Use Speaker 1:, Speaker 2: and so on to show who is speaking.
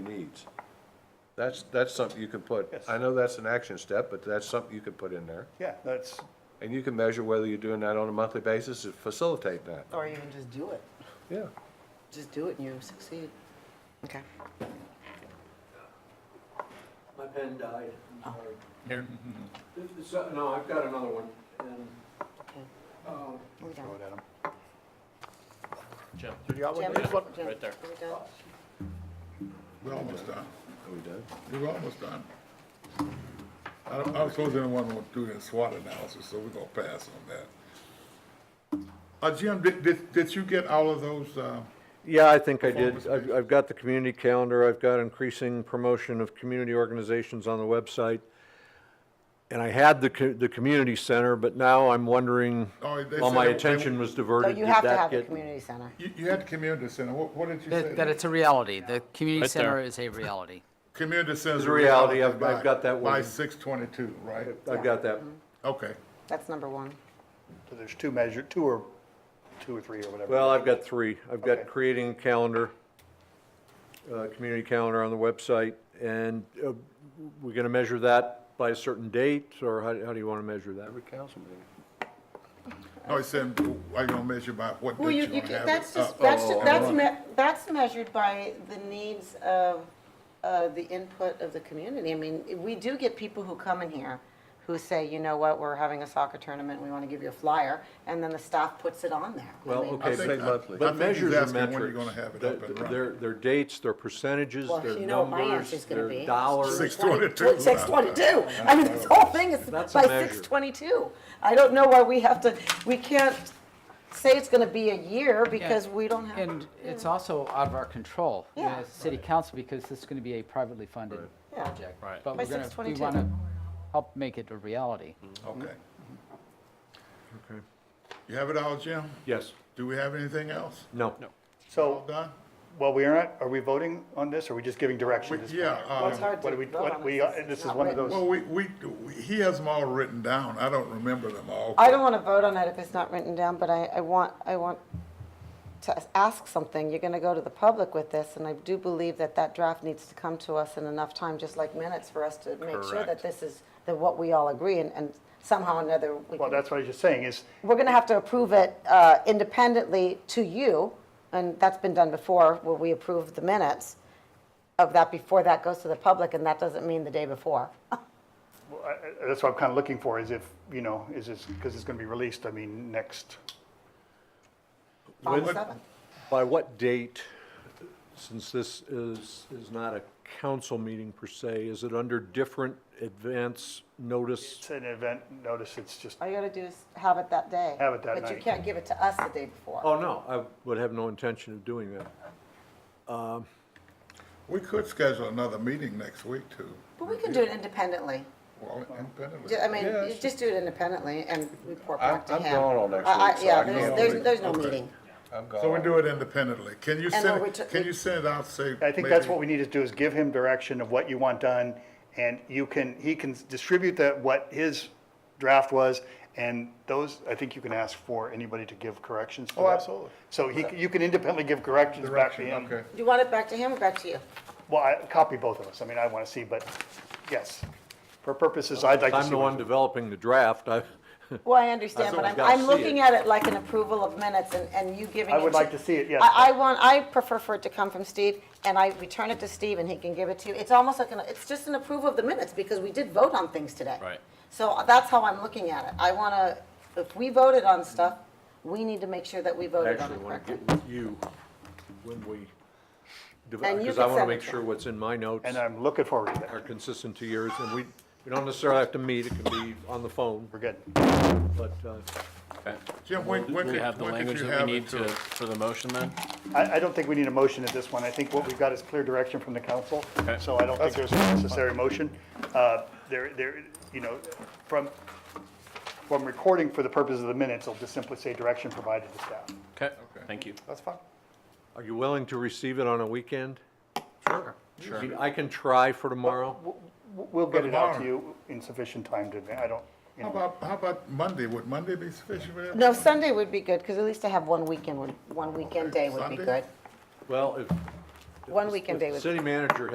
Speaker 1: deeds. That's, that's something you can put,
Speaker 2: Yes.
Speaker 1: I know that's an action step, but that's something you can put in there.
Speaker 2: Yeah, that's,
Speaker 1: And you can measure whether you're doing that on a monthly basis to facilitate that,
Speaker 3: Or even just do it.
Speaker 1: yeah.
Speaker 3: Just do it and you succeed. Okay.
Speaker 4: My pen died, I'm sorry.
Speaker 5: Here.
Speaker 4: This is, uh, no, I've got another one, and,
Speaker 3: Okay.
Speaker 4: um,
Speaker 3: Are we done?
Speaker 2: throw it at 'em.
Speaker 5: Jim.
Speaker 2: You got one?
Speaker 3: Jim?
Speaker 2: There's one.
Speaker 3: Jim,
Speaker 5: right there.
Speaker 3: are we done?
Speaker 6: We're almost done.
Speaker 1: Are we done?
Speaker 6: We're almost done. I don't, I don't suppose anyone will do the SWOT analysis, so we're gonna pass on that. Uh, Jim, did, did, did you get all of those, uh,
Speaker 7: Yeah, I think I did.
Speaker 6: Performance
Speaker 7: I've, I've got the community calendar, I've got increasing promotion of community organizations on the website. And I had the, co- the community center, but now I'm wondering,
Speaker 6: Oh, they
Speaker 7: all my
Speaker 6: said-
Speaker 7: attention was
Speaker 3: So
Speaker 7: diverted.
Speaker 3: Oh, you
Speaker 7: Did
Speaker 3: have to
Speaker 7: that
Speaker 3: have the
Speaker 7: get-
Speaker 3: community center.
Speaker 6: you, you had the community center, what, what did you say?
Speaker 8: That, that it's a reality. The community
Speaker 5: Right there.
Speaker 8: center is a reality.
Speaker 6: Community center.
Speaker 7: It's a reality. I've- I've got that
Speaker 6: By
Speaker 7: one.
Speaker 6: six twenty-two, right?
Speaker 7: I've got that.
Speaker 3: Mm-hmm.
Speaker 6: Okay.
Speaker 3: That's number one.
Speaker 2: So There's two measure, two or, two or three or whatever.
Speaker 7: Well, I've got three. I've
Speaker 2: Okay.
Speaker 7: got creating a calendar, uh, community calendar on the website. And, uh, we're gonna measure that by a certain date, or how, how do you wanna measure that?
Speaker 1: Every council meeting.
Speaker 6: No, he said, are you gonna measure by what
Speaker 3: Well,
Speaker 6: date
Speaker 3: you,
Speaker 6: you
Speaker 3: you,
Speaker 6: wanna have it Uh, oh,
Speaker 3: that's just,
Speaker 6: up
Speaker 3: that's,
Speaker 6: and
Speaker 3: ju- that's,
Speaker 6: running?
Speaker 3: me- that's measured by the needs of, uh, the input of the community. I mean, we do get people who come in here who say, you know what, we're having a soccer tournament, we want to give you a flyer, and then the staff puts it on there. I
Speaker 7: Well,
Speaker 3: mean,
Speaker 7: okay,
Speaker 6: think-
Speaker 7: but-
Speaker 6: I- I
Speaker 7: but
Speaker 6: think
Speaker 7: measures
Speaker 6: he's
Speaker 7: are
Speaker 6: asking when you're
Speaker 7: metrics.
Speaker 6: gonna have it
Speaker 7: Their-
Speaker 6: up and running.
Speaker 7: Their, their dates, their percentages,
Speaker 3: Well,
Speaker 7: their
Speaker 3: you know what my
Speaker 7: numbers,
Speaker 3: answer's gonna be.
Speaker 7: their dollars.
Speaker 6: Six twenty-two.
Speaker 3: Six twenty-two. I mean, this whole thing is by
Speaker 7: That's a measure.
Speaker 3: six twenty-two. I don't know why we have to, we can't say it's gonna be a year because we don't have.
Speaker 8: And it's also out of our control, you know,
Speaker 3: Yeah.
Speaker 8: as a city council, because this is going to be a privately funded
Speaker 3: Yeah.
Speaker 8: project.
Speaker 5: Right. Mm-hmm.
Speaker 8: But
Speaker 3: By
Speaker 8: we're going to, we
Speaker 3: 622.
Speaker 8: want to help make it a reality.
Speaker 6: oh, Okay.
Speaker 7: Okay.
Speaker 6: You have it all, Jim?
Speaker 7: Yes,
Speaker 6: Do we have anything else?
Speaker 7: no.
Speaker 6: All
Speaker 2: So,
Speaker 6: done?
Speaker 2: well, we aren't, are we voting on this, or are we just giving direction? at this
Speaker 6: Yeah,
Speaker 2: point?
Speaker 6: uh,
Speaker 3: Well, it's hard
Speaker 2: What
Speaker 3: to
Speaker 2: do we,
Speaker 3: vote
Speaker 2: what
Speaker 3: on
Speaker 2: we,
Speaker 3: this. It's
Speaker 2: this is
Speaker 3: not
Speaker 2: one of
Speaker 3: written.
Speaker 2: those.
Speaker 6: Well, Oh, we, we, he has them all written down. I don't remember them all.
Speaker 3: I don't want to vote on it if it's not written down, but I, I want, I want to ask something. You're going to go to the public with this, and I do believe that that draft needs to come to us in enough time, just like minutes, for us to make sure that
Speaker 5: Correct.
Speaker 3: this is, that what we all agree, and, and somehow or another, we
Speaker 2: Well,
Speaker 3: can,
Speaker 2: that's what I was just saying, is,
Speaker 3: we're going to have to approve it uh, independently to you, and that's been done before, where we approve the minutes of that before that goes to the public, and that doesn't mean the day before.
Speaker 2: well, I- I- that's what I'm kind of looking for, is if, you know, is this, because it's going to be released, I mean, next,
Speaker 3: On the
Speaker 6: When-
Speaker 3: 7th.
Speaker 7: By what date, since this is, is not a council meeting per se, is it under different advance notice?
Speaker 2: it's an event notice, it's just,
Speaker 3: All you got to do is have it that day.
Speaker 2: Have it that
Speaker 3: But you
Speaker 2: night.
Speaker 3: can't give it to us the day before.
Speaker 7: Oh, no, I would have no intention of doing that.
Speaker 6: We could schedule another meeting next week too.
Speaker 3: But we can do it independently.
Speaker 6: Well, independently.
Speaker 3: Ju- I mean,
Speaker 1: Yeah,
Speaker 3: you just do it independently and report
Speaker 1: I'm-
Speaker 3: back to
Speaker 1: I'm
Speaker 3: him.
Speaker 1: gone all next
Speaker 3: I- I-
Speaker 1: week, so I
Speaker 3: Yeah,
Speaker 1: can't
Speaker 3: there's,
Speaker 6: really-
Speaker 3: there's, there's no
Speaker 6: okay.
Speaker 3: meeting.
Speaker 1: I'm
Speaker 6: So we
Speaker 1: gone.
Speaker 6: do it independently. Can you send,
Speaker 3: we
Speaker 6: it-
Speaker 3: took-
Speaker 6: can
Speaker 3: we-
Speaker 6: you send it out, say?
Speaker 2: I think that's what we need to do, is give him direction of what you want done, and you can, he can distribute that, what his draft was, and those, I think you can ask for anybody to give corrections to that.
Speaker 6: Oh, absolutely.
Speaker 2: So he, c- you can independently give corrections back to
Speaker 6: Direction,
Speaker 2: him.
Speaker 6: okay.
Speaker 3: Do you want it back to him or back to you?
Speaker 2: Well, I, copy both of us, I mean, I want to see, but, yes, for purposes, I'd like to see.
Speaker 7: I'm the
Speaker 2: what-
Speaker 7: one developing the draft, I,
Speaker 3: Well, I understand, but
Speaker 7: Someone's
Speaker 3: I'm,
Speaker 7: gotta
Speaker 3: I'm
Speaker 7: see
Speaker 3: looking
Speaker 7: it.
Speaker 3: at it like an approval of minutes and, and you giving it
Speaker 2: I
Speaker 3: to.
Speaker 2: would like to see it, yes.
Speaker 3: I, I want, I prefer for it to come from Steve and I return it to Steve and he can give it to you. It's almost like, an it's just an approval of the minutes because we did vote on things today.
Speaker 5: Right.
Speaker 3: So uh, that's how I'm looking at it. I want to, if we voted on stuff, we need to make sure that we voted on
Speaker 7: actually
Speaker 3: it
Speaker 7: want
Speaker 3: correctly.
Speaker 7: to get with you when we,
Speaker 3: And you
Speaker 7: because
Speaker 3: can
Speaker 7: I want to
Speaker 3: send it
Speaker 7: make
Speaker 3: to
Speaker 7: sure
Speaker 3: him.
Speaker 7: what's in my notes.
Speaker 2: And uh, I'm looking forward to
Speaker 7: are
Speaker 2: that,
Speaker 7: consistent to yours, and we, we don't necessarily have to meet, it can be on the phone,
Speaker 2: we're good.
Speaker 7: but, uh,
Speaker 6: Jim, when,
Speaker 5: Do
Speaker 6: when
Speaker 5: we
Speaker 6: could,
Speaker 5: have the
Speaker 6: when could
Speaker 5: language
Speaker 6: you
Speaker 5: that
Speaker 6: have
Speaker 5: we
Speaker 6: it
Speaker 5: need to,
Speaker 6: to?
Speaker 5: for the motion then?
Speaker 2: I, I don't think we need a motion at this one. I think what we've got is clear direction from the council,
Speaker 5: Okay.
Speaker 2: so I don't think there's a necessary motion. Uh, There, there, you know, from, from recording for the purpose of the minutes, I'll just simply say direction provided to staff.
Speaker 5: Okay, thank you.
Speaker 2: That's fine.
Speaker 7: are you willing to receive it on a weekend? Sure. I can try for tomorrow,
Speaker 2: We'll get it out to
Speaker 6: tomorrow.
Speaker 2: you in sufficient time to, advan- I don't, you
Speaker 6: How
Speaker 2: know,
Speaker 6: about, how about Monday? Would Monday be sufficient for that?
Speaker 3: No, Sunday would be good, because at least I have one weekend, would- one weekend day would be
Speaker 6: Sunday?
Speaker 3: good.
Speaker 7: well, if.
Speaker 3: One weekend day
Speaker 7: if
Speaker 3: would be
Speaker 7: City manager